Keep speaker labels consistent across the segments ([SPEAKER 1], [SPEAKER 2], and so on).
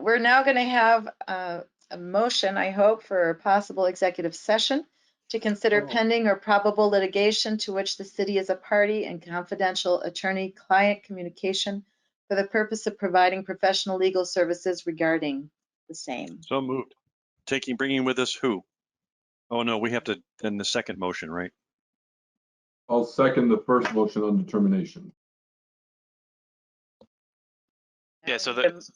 [SPEAKER 1] we're now going to have uh, a motion, I hope, for a possible executive session to consider
[SPEAKER 2] Oh.
[SPEAKER 1] pending or probable litigation to which the city is a party and confidential attorney-client communication for the purpose of providing professional legal services regarding the same.
[SPEAKER 2] So moved. Taking, bringing with us who? Oh, no, we have to, then the second motion, right?
[SPEAKER 3] I'll second the first motion on determination.
[SPEAKER 4] Yeah, so
[SPEAKER 1] Now we need
[SPEAKER 4] the-
[SPEAKER 1] a- um,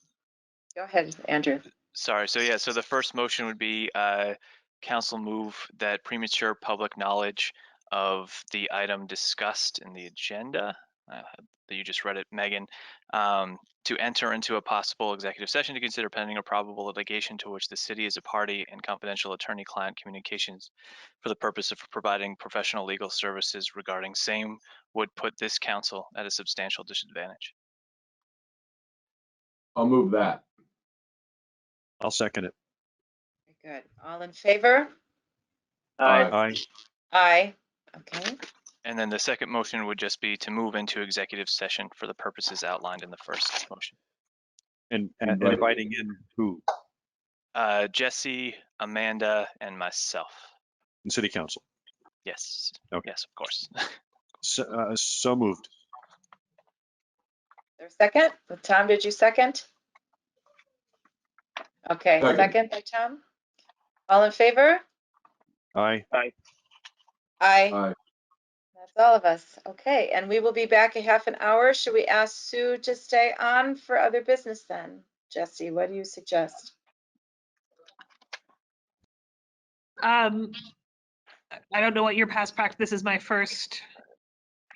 [SPEAKER 1] Go ahead, Andrew.
[SPEAKER 4] Sorry, so yeah, so the first motion would be uh, council move that premature public knowledge of the item discussed in the agenda, uh, that you just read it, Megan, um, to enter into a possible executive session to consider pending or probable litigation to which the city is a party and confidential attorney-client communications for the purpose of providing professional legal services regarding same would put this council at a substantial disadvantage.
[SPEAKER 3] I'll move that.
[SPEAKER 2] I'll second it.
[SPEAKER 1] Good. All in favor?
[SPEAKER 3] Aye.
[SPEAKER 2] Aye.
[SPEAKER 1] Aye. Okay,
[SPEAKER 4] And then the second motion would just be to move into executive session for the purposes outlined in the first motion.
[SPEAKER 2] And, and
[SPEAKER 3] Right.
[SPEAKER 2] inviting in who?
[SPEAKER 4] Uh, Jesse, Amanda, and myself.
[SPEAKER 2] In city council.
[SPEAKER 4] Yes,
[SPEAKER 2] Okay.
[SPEAKER 4] yes, of course.
[SPEAKER 2] So, uh, so moved.
[SPEAKER 1] there's second. Tom, did you second? Okay,
[SPEAKER 3] Second.
[SPEAKER 1] second by Tom. All in favor?
[SPEAKER 2] Aye.
[SPEAKER 1] Aye.
[SPEAKER 3] Aye.
[SPEAKER 1] That's all of us. Okay, and we will be back a half an hour. Should we ask Sue to stay on for other business then? Jesse, what do you suggest?
[SPEAKER 5] Um, I- I don't know what your past practice, this is my first,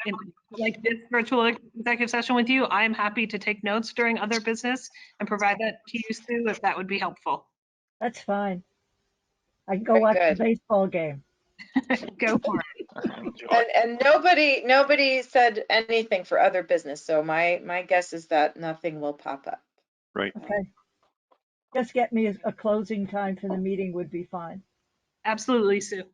[SPEAKER 5] in- like, this virtual executive session with you. I'm happy to take notes during other business and provide that to you, Sue, if that would be helpful.
[SPEAKER 6] That's fine. I can go
[SPEAKER 1] Very
[SPEAKER 6] watch a
[SPEAKER 1] good.
[SPEAKER 6] baseball game.
[SPEAKER 5] Go for it.
[SPEAKER 1] And, and nobody, nobody said anything for other business, so my, my guess is that nothing will pop up.
[SPEAKER 2] Right.
[SPEAKER 6] Okay. Just get me a- a closing time for the meeting would be fine.
[SPEAKER 5] Absolutely, Sue.